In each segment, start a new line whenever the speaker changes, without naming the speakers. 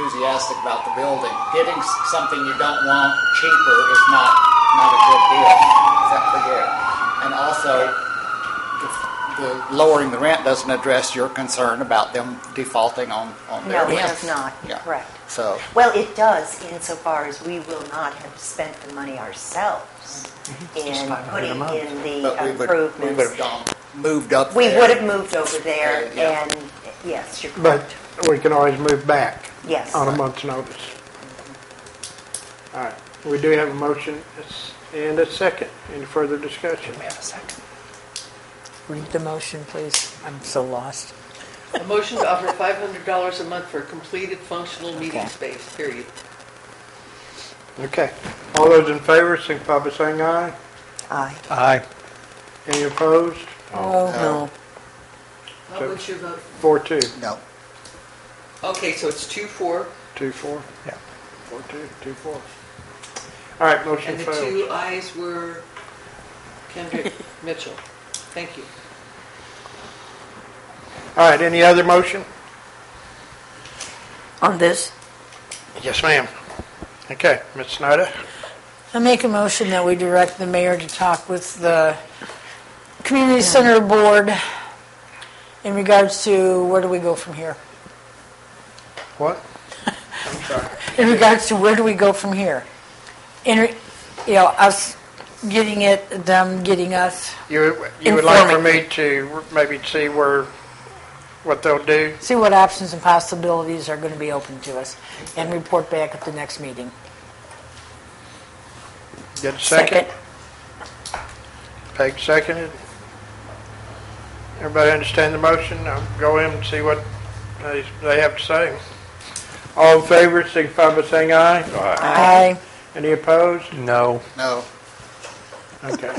enthusiastic about the building. Getting s- something you don't want cheaper is not not a good deal, except for you. And also, the, the lowering the rent doesn't address your concern about them defaulting on on their
No,
rent.
it does not.
Yeah.
Correct.
So.
Well, it does insofar as we will not have spent the money ourselves
Mm-hmm.
in putting in
But
the
we would, we would have
improvements.
gone, moved up
We
there.
would have moved over there
Uh, yeah.
and, yes, you're
But
correct.
we can always move back.
Yes.
On a month's notice. All right, we do have a motion and a second. Any further discussion?
We have a second. Read the motion, please. I'm so lost.
A motion to offer $500 a month for completed functional meeting
Okay.
space, period.
Okay. All those in favor, signify by saying aye.
Aye.
Aye.
Any opposed?
Oh, no.
What was your vote?
Four, two.
No.
Okay, so it's two, four,
Two, four?
Yeah.
Four, two, two, four. All right, motion
and the
failed.
two ayes were Kendrick Mitchell. Thank you.
All right, any other motion?
On this,
Yes, ma'am. Okay, Ms. Snyder?
I make a motion that we direct the mayor to talk with the community center board in regards to where do we go from here?
What? I'm sorry.
In regards to where do we go from here? In, re- you know, us getting it, them getting us,
You, you would like for
Informing.
me to maybe see where, what they'll do?
see what options and possibilities are going to be open to us, and report back at the next meeting.
Get a second? Peg seconded. Everybody understand the motion? I'll go in and see what they, they have to say. All in favor, signify by saying aye.
Aye.
Any opposed?
No.
No.
Okay.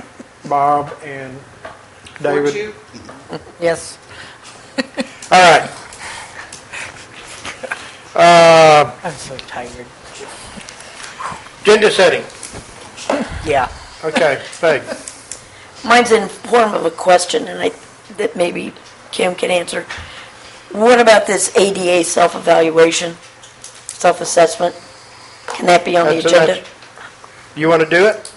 Bob and
Four,
David.
two,
Yes.
All right. Uh,
I'm so tired.
agenda setting.
yeah.
Okay, Peg.
Mine's in form of a question, and I, that maybe Kim can answer. What about this ADA self-evaluation, self-assessment? Can that be on the
That's- that's-
agenda?
You want to do it?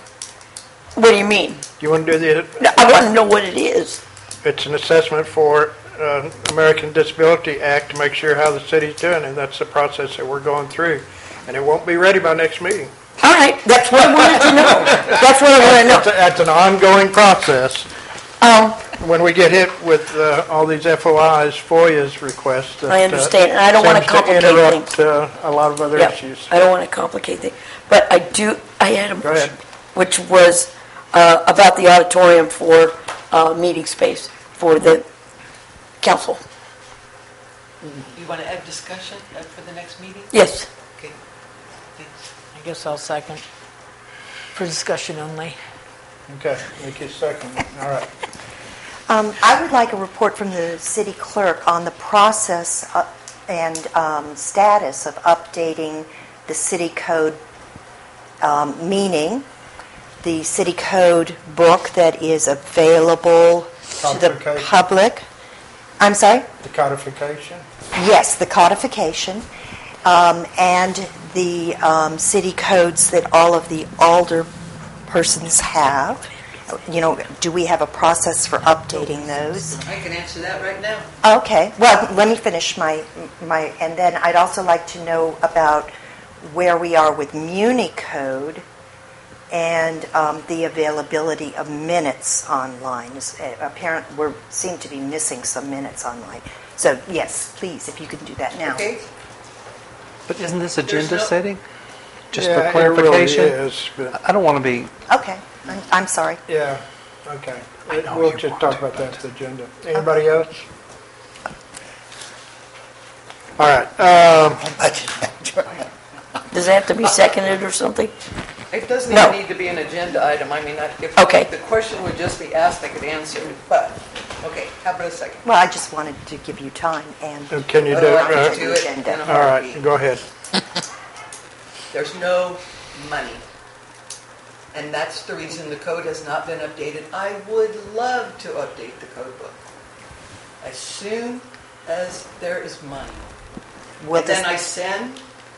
What do you mean?
You want to do the,
No, I want to know what it is.
It's an assessment for uh, American Disability Act to make sure how the city's doing, and that's the process that we're going through. And it won't be ready by next meeting.
All right, that's what I wanted to know. That's what I want to know.
That's a- that's an ongoing process.
Um,
When we get hit with uh, all these FOIs, FOIA's requests. that,
I
uh,
understand, and I don't wanna
seems
complicate
interrupt uh, a lot of other
Yeah,
issues.
I don't want to complicate things, but I do, I had a
Go ahead.
motion, which was uh, about the auditorium for uh, meeting space for the council.
you want to have discussion uh, for the next meeting?
Yes,
Okay, thanks.
I guess I'll second. For discussion only.
Okay, Nikki's second. All right.
Um, I would like a report from the city clerk on the process uh, and um, status of updating the city code, um, meaning the city code book that is available to the
Codification.
public. I'm sorry?
The codification.
Yes, the codification, um, and the um, city codes that all of the alder persons have. You know, do we have a process for updating those?
I can answer that right now.
Okay, well, let me finish my, my, and then I'd also like to know about where we are with Muni Code and um, the availability of minutes online. Is- uh, Apparent, we are seem to be missing some minutes online. So yes, please, if you can do that now.
Okay,
But isn't this
no-
agenda setting? Just
Yeah,
for
it really
clarification?
is, but-
I don't want to be,
Okay, I'm, I'm sorry.
Yeah, okay.
I know
We'll
you
just
want
talk
to,
about that
but-
at the agenda. Anybody else? All right, um,
does that have to be seconded or something?
it doesn't
No.
even need to be an agenda item, I mean, I- if.
Okay.
The question would just be asked, I could answer, it. but, okay, how about a second?
Well, I just wanted to give you time and.
um, can you do
Oh, I
Otherwise,
can
it?
do it
Agenda.
in a
uh, All right,
heartbeat.
go ahead.
There's no money. And that's the reason the code has not been updated. I would love to update the code book as soon as there is money.
Will
And then I
this,
send